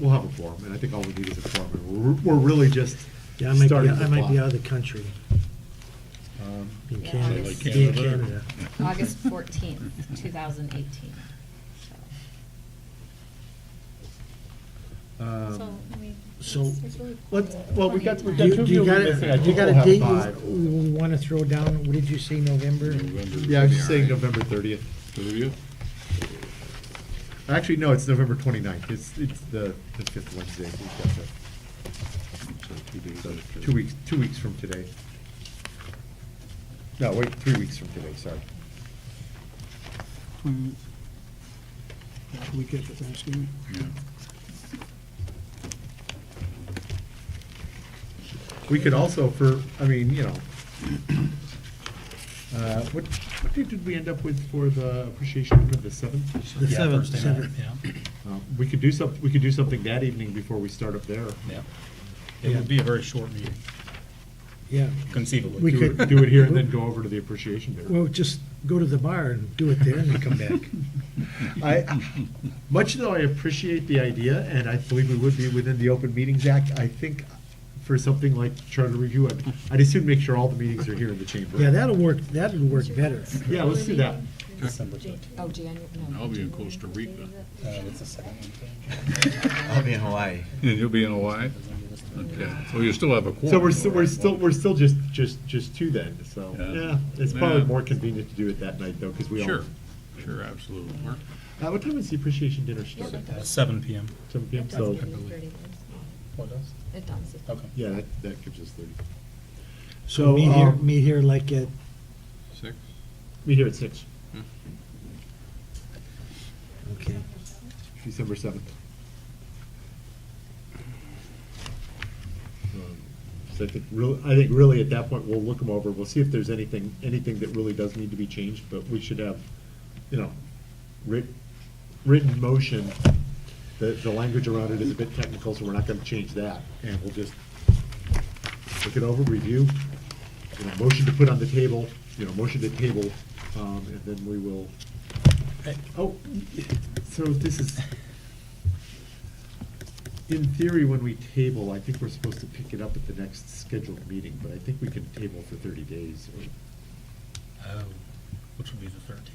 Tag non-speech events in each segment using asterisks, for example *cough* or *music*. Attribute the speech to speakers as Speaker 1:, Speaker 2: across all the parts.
Speaker 1: we'll have a forum, and I think all we need is a forum. And We're, we're really just
Speaker 2: Yeah, I might be,
Speaker 1: starting to
Speaker 2: I might be
Speaker 1: fly.
Speaker 2: out of the country,
Speaker 1: Um,
Speaker 2: in
Speaker 3: Yeah,
Speaker 2: Canada,
Speaker 3: Like
Speaker 2: be in
Speaker 3: Canada.
Speaker 2: Canada.
Speaker 3: August fourteenth, two thousand eighteen.
Speaker 1: um,
Speaker 2: So,
Speaker 1: Let, well, we got, we
Speaker 2: do
Speaker 1: got
Speaker 2: you
Speaker 1: two
Speaker 2: do you
Speaker 1: people
Speaker 2: got,
Speaker 1: missing. I
Speaker 2: a- you
Speaker 1: think
Speaker 2: got
Speaker 1: we'll
Speaker 2: a
Speaker 1: have
Speaker 2: date
Speaker 1: five.
Speaker 2: you you wanna throw down? What did you say, November?
Speaker 1: Yeah, I was just saying November thirtieth.
Speaker 4: Thirtieth?
Speaker 1: Actually, no, it's November 29th. It's, it's the, the fifth Wednesday. We've got that.
Speaker 4: So two days after.
Speaker 1: Two weeks, two weeks from today. No, wait, three weeks from today, sorry.
Speaker 5: We get the Thanksgiving.
Speaker 4: Yeah.
Speaker 1: We could also for, I mean, you know, *clears throat* uh, what, what date did we end up with for the appreciation of the seventh?
Speaker 2: The seventh, seventh.
Speaker 1: Um, We could do some, we could do something that evening before we start up there.
Speaker 6: Yeah. It would be a very short meeting,
Speaker 2: Yeah,
Speaker 6: conceivably.
Speaker 2: We
Speaker 1: Do
Speaker 2: could-
Speaker 1: it, do it here and then go over to the appreciation dinner.
Speaker 2: well, just go to the bar and do it there and then come
Speaker 6: *laughs*
Speaker 2: back.
Speaker 1: *laughs*
Speaker 4: *laughs*
Speaker 1: I, much though I appreciate the idea, and I believe we would be within the Open Meetings Act, I think for something like charter review, I'd, I'd assume make sure all the meetings are here in the chamber.
Speaker 2: Yeah, that'll work, that'll work better.
Speaker 1: Yeah, let's do that.
Speaker 6: December fifteenth.
Speaker 3: Oh, January, no.
Speaker 4: I'll be in Costa Rica.
Speaker 6: Uh, what's the second one? *laughs*
Speaker 7: I'll be in Hawaii.
Speaker 4: And you'll be in Hawaii? Okay, so you still have a quorum.
Speaker 1: So we're, still-
Speaker 4: though,
Speaker 1: we're
Speaker 4: right?
Speaker 1: still, we're still just, just, just two then, so,
Speaker 4: Yeah.
Speaker 1: yeah, it's probably
Speaker 4: Yeah.
Speaker 1: more convenient to do it that night though, because we all.
Speaker 4: Sure, sure, absolutely. Mark?
Speaker 1: Uh, what time is the appreciation dinner start?
Speaker 6: Uh, Seven PM.
Speaker 1: Seven PM,
Speaker 3: It does
Speaker 1: so,
Speaker 3: give you 30 minutes.
Speaker 6: What else?
Speaker 3: It does.
Speaker 6: Okay.
Speaker 1: yeah, that, that gives us thirty.
Speaker 2: So
Speaker 1: So,
Speaker 2: meet here,
Speaker 1: um,
Speaker 2: meet here like at,
Speaker 4: Six?
Speaker 1: Meet here at six,
Speaker 2: okay.
Speaker 1: December seventh. So I think really, I think really at that point, we'll look them over, we'll see if there's anything, anything that really does need to be changed, but we should have, you know, writ, written motion. The, the language around it is a bit technical, so we're not gonna change that, and we'll just look it over, review, you know, motion to put on the table, you know, motion to table, um, and then we will. Oh, so this is, in theory, when we table, I think we're supposed to pick it up at the next scheduled meeting, but I think we can table for thirty days. or-
Speaker 6: Oh, which would be the thirteenth.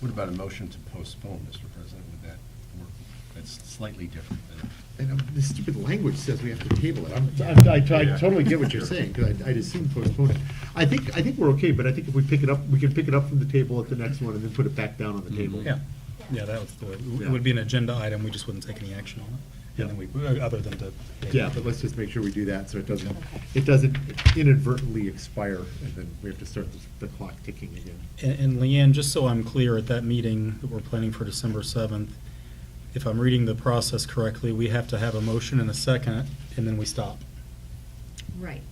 Speaker 8: What about a motion to postpone, Mr. President? Would that work? That's slightly different than.
Speaker 1: And um, this stupid language says we have to table it. I'm- I'm- I I totally get what you're saying, because I'd assume postpone it. I think, I think we're okay, but I think if we pick it up, we can pick it up from the table at the next one and then put it back down on the table.
Speaker 6: Mm-hmm. Yeah, yeah, that was the way, it
Speaker 1: Yeah.
Speaker 6: would be an agenda item, we just wouldn't take any action on it.
Speaker 1: Yeah.
Speaker 6: And then we, uh, other than to.
Speaker 1: Yeah, but let's just make sure we do that, so it doesn't, it doesn't inadvertently expire, and then we have to start the the clock ticking again.
Speaker 6: And- And Leanne, just so I'm clear, at that meeting that we're planning for December 7th, if I'm reading the process correctly, we have to have a motion and a second, and then we stop.
Speaker 3: Right.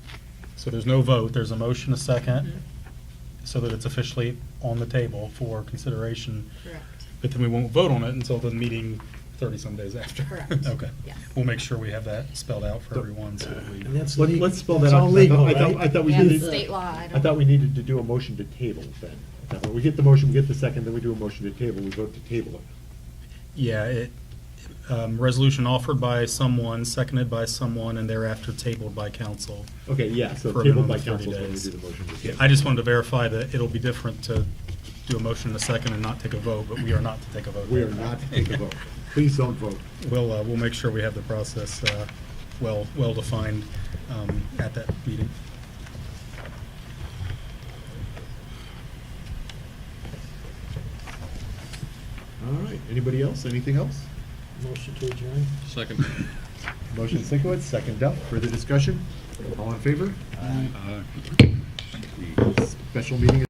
Speaker 6: So there's no vote, there's a motion, a second,
Speaker 3: Mm-hmm.
Speaker 6: so that it's officially on the table for consideration.
Speaker 3: Correct.
Speaker 6: But then we won't vote on it until the meeting 30-some days after.
Speaker 3: Correct.
Speaker 6: *laughs* Okay.
Speaker 3: Yeah.
Speaker 6: We'll make sure we have that spelled out for everyone, so that we.
Speaker 2: And that's
Speaker 1: Let-
Speaker 2: legal.
Speaker 1: Let's spell that
Speaker 2: It's
Speaker 1: out.
Speaker 2: all
Speaker 1: 'cause I
Speaker 2: legal,
Speaker 1: thought- I thought- I
Speaker 2: right?
Speaker 1: thought we
Speaker 3: Yeah,
Speaker 1: needed.
Speaker 3: state law, I
Speaker 1: I
Speaker 3: don't-
Speaker 1: thought we needed to do a motion to table then. I thought, well, We get the motion, we get the second, then we do a motion to table, we vote to table it.
Speaker 6: Yeah, it, um, resolution offered by someone, seconded by someone, and thereafter tabled by council.
Speaker 1: Okay, yeah, so
Speaker 6: For a
Speaker 1: tabled
Speaker 6: minimum
Speaker 1: by
Speaker 6: of 30
Speaker 1: council is when we
Speaker 6: days.
Speaker 1: do the motion to
Speaker 6: Yeah,
Speaker 1: table.
Speaker 6: I just wanted to verify that it'll be different to do a motion in a second and not take a vote, but we are not to take a vote.
Speaker 1: We are not to take a
Speaker 6: *laughs*
Speaker 1: vote. Please don't vote.
Speaker 6: We'll, uh, we'll make sure we have the process, uh, well, well-defined, um, at that meeting.
Speaker 1: All right, anybody else, anything else?
Speaker 2: Motion to adjourn.
Speaker 4: Second.
Speaker 1: Motion Sinkowitz, second up, further discussion? All in favor?
Speaker 4: Aye.
Speaker 1: The Special meeting is